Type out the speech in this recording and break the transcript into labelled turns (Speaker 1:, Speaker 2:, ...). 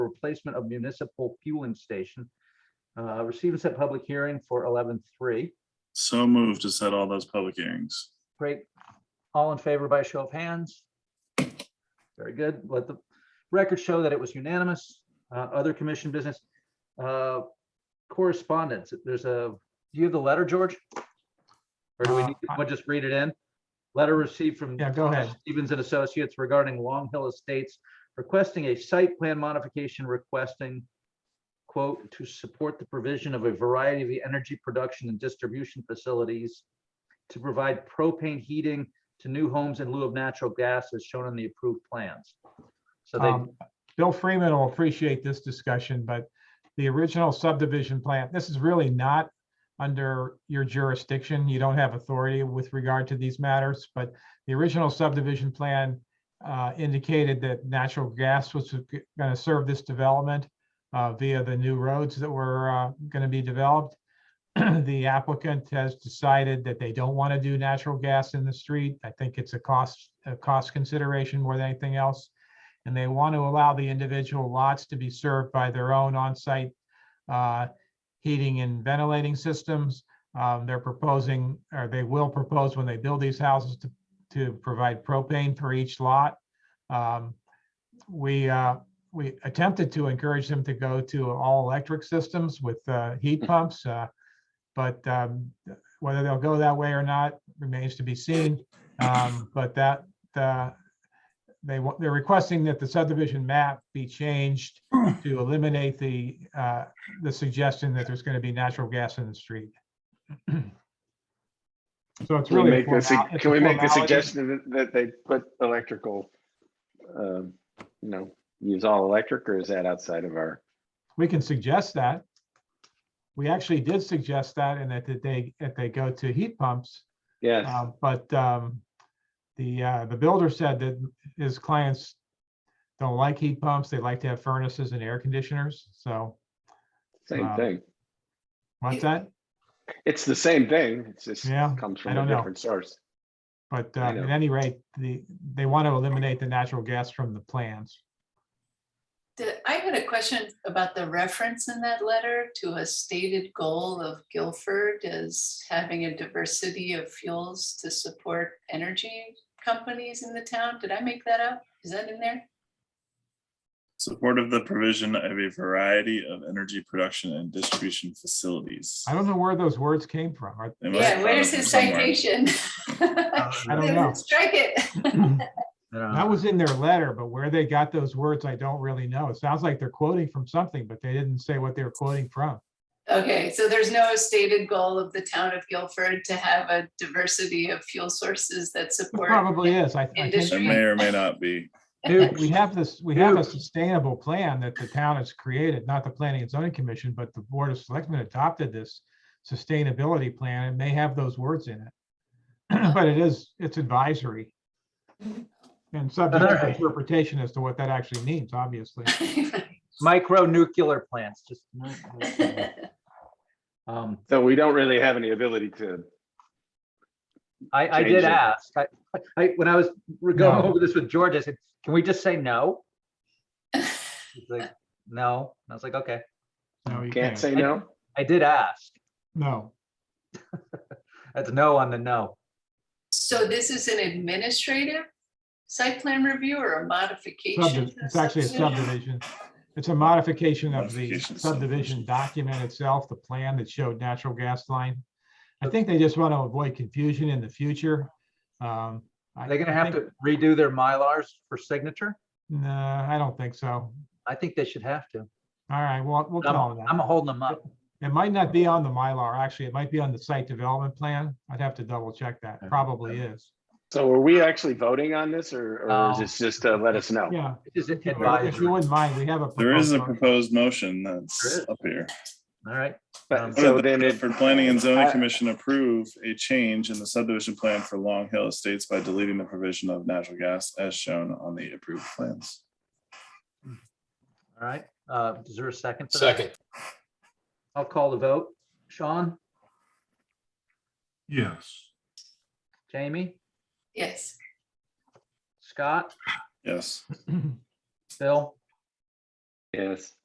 Speaker 1: replacement of municipal fueling station. Uh, receive and set public hearing for eleven three.
Speaker 2: So moved to set all those public hearings.
Speaker 1: Great. All in favor by show of hands? Very good. Let the record show that it was unanimous. Uh, other commission business. Uh, correspondence, there's a, do you have the letter, George? Or do we
Speaker 3: Uh,
Speaker 1: need, to just read it in? Letter received from
Speaker 3: Yeah, go ahead.
Speaker 1: Stevens and Associates regarding Long Hill Estates requesting a site plan modification requesting quote, to support the provision of a variety of the energy production and distribution facilities to provide propane heating to new homes in lieu of natural gas as shown in the approved plans. So they,
Speaker 3: Um, Bill Freeman will appreciate this discussion, but the original subdivision plan, this is really not under your jurisdiction. You don't have authority with regard to these matters, but the original subdivision plan uh, indicated that natural gas was going to serve this development uh, via the new roads that were going to be developed. The applicant has decided that they don't want to do natural gas in the street. I think it's a cost, a cost consideration more than anything else and they want to allow the individual lots to be served by their own on-site uh, heating and ventilating systems. Um, They're proposing, or they will propose when they build these houses to, to provide propane for each lot. Um, We, uh, we attempted to encourage them to go to all-electric systems with uh,
Speaker 4: Hmm.
Speaker 3: heat pumps. uh, But um, whether they'll go that way or not remains to be seen. Um, But that, uh, they want, they're requesting that the subdivision map be changed
Speaker 4: Hmm.
Speaker 3: to eliminate the, uh, the suggestion that there's going to be natural gas in the street. So it's
Speaker 4: Can we
Speaker 3: really. a
Speaker 4: make
Speaker 3: formal-
Speaker 4: the, sug-
Speaker 3: it's
Speaker 4: can
Speaker 3: a
Speaker 4: we make the
Speaker 3: formality.
Speaker 4: suggestion that- that they put electrical, um, you know, use all electric or is that outside of our?
Speaker 3: We can suggest that. We actually did suggest that and that that they, that they go to heat pumps.
Speaker 4: Yes,
Speaker 3: uh, But um, the, uh, the builder said that his clients don't like heat pumps. They like to have furnaces and air conditioners. So
Speaker 4: same
Speaker 3: uh,
Speaker 4: thing.
Speaker 3: what's that?
Speaker 4: It's the same thing. It's just
Speaker 3: Yeah,
Speaker 4: comes
Speaker 3: I
Speaker 4: from a
Speaker 3: don't know.
Speaker 4: different source.
Speaker 3: But
Speaker 4: I
Speaker 3: um, at
Speaker 4: know.
Speaker 3: any rate, the, they want to eliminate the natural gas from the plans.
Speaker 5: The- I had a question about the reference in that letter to a stated goal of Guilford as having a diversity of fuels to support energy companies in the town. Did I make that up? Is that in there?
Speaker 2: Support of the provision of a variety of energy production and distribution facilities.
Speaker 3: I don't know where those words came from. or-
Speaker 2: They must have
Speaker 5: Yeah,
Speaker 2: found
Speaker 5: where's
Speaker 2: it
Speaker 5: his
Speaker 2: somewhere.
Speaker 5: citation?
Speaker 3: Uh,
Speaker 1: uh,
Speaker 3: I don't know.
Speaker 5: Strike it.
Speaker 4: Uh-huh.
Speaker 3: That was in their letter, but where they got those words, I don't really know. It sounds like they're quoting from something, but they didn't say what they were quoting from.
Speaker 5: Okay, so there's no stated goal of the town of Guilford to have a diversity of fuel sources that
Speaker 3: It
Speaker 5: support.
Speaker 3: probably is. I, I
Speaker 2: It
Speaker 3: think
Speaker 5: Industry.
Speaker 2: may or may not be.
Speaker 3: Dude, we have this, we have a sustainable plan that the town has created, not the planning and zoning commission, but the board of selectmen adopted this sustainability plan. It may have those words in it. But it is, it's advisory. And subject to
Speaker 1: Alright.
Speaker 3: interpretation as to what that actually means, obviously.
Speaker 1: micro nuclear plants, just. Um,
Speaker 4: So we don't really have any ability to,
Speaker 1: I, I
Speaker 4: Change
Speaker 1: did
Speaker 4: it.
Speaker 1: ask, I, I, when I was re- going
Speaker 3: No.
Speaker 1: over this with George, I said, can we just say no? He's like, no, and I was like, okay,
Speaker 3: No, you
Speaker 4: can't
Speaker 3: can't.
Speaker 4: say no.
Speaker 1: I did ask,
Speaker 3: No,
Speaker 1: that's no on the no.
Speaker 5: So this is an administrative site plan review or a modification?
Speaker 3: subdi-
Speaker 5: to the
Speaker 3: it's actually a subdivision. It's a modification of the
Speaker 2: Modification,
Speaker 3: subdivision
Speaker 2: subdivision.
Speaker 3: document itself, the plan that showed natural gas line. I think they just want to avoid confusion in the future. Um, I-
Speaker 1: Are they gonna
Speaker 3: I
Speaker 1: have
Speaker 3: think-
Speaker 1: to redo their Mylars for signature?
Speaker 3: No, I don't think so.
Speaker 1: I think they should have to.
Speaker 3: All right, well, we'll
Speaker 1: I'm,
Speaker 3: call it
Speaker 1: I'm
Speaker 3: that.
Speaker 1: holding them up.
Speaker 3: It might not be on the Mylar, actually. It might be on the site development plan. I'd have to double check that.
Speaker 1: Okay.
Speaker 3: Probably is.
Speaker 4: So are we actually voting on this or, or is
Speaker 1: No.
Speaker 4: this just to let us know?
Speaker 3: Yeah.
Speaker 1: This is
Speaker 3: If
Speaker 1: advisory,
Speaker 3: you
Speaker 1: all
Speaker 3: wouldn't mind, we have a.
Speaker 2: There is a
Speaker 3: proposed-
Speaker 2: proposed motion
Speaker 1: There
Speaker 2: that's
Speaker 1: is.
Speaker 2: up here.
Speaker 1: right? Um,
Speaker 4: But
Speaker 2: What
Speaker 4: so
Speaker 2: did the
Speaker 4: then if,
Speaker 2: Guilford Planning and Zoning
Speaker 4: I-
Speaker 2: Commission approve a change in the subdivision plan for Long Hill Estates by deleting the provision of natural gas as shown on the approved plans.
Speaker 1: All right, uh, is there a second? to that?
Speaker 6: Second,
Speaker 1: I'll call the vote. Sean,
Speaker 7: Yes.
Speaker 1: Jamie,
Speaker 5: Yes,
Speaker 1: Scott,
Speaker 2: Yes,
Speaker 1: Bill,
Speaker 4: Yes.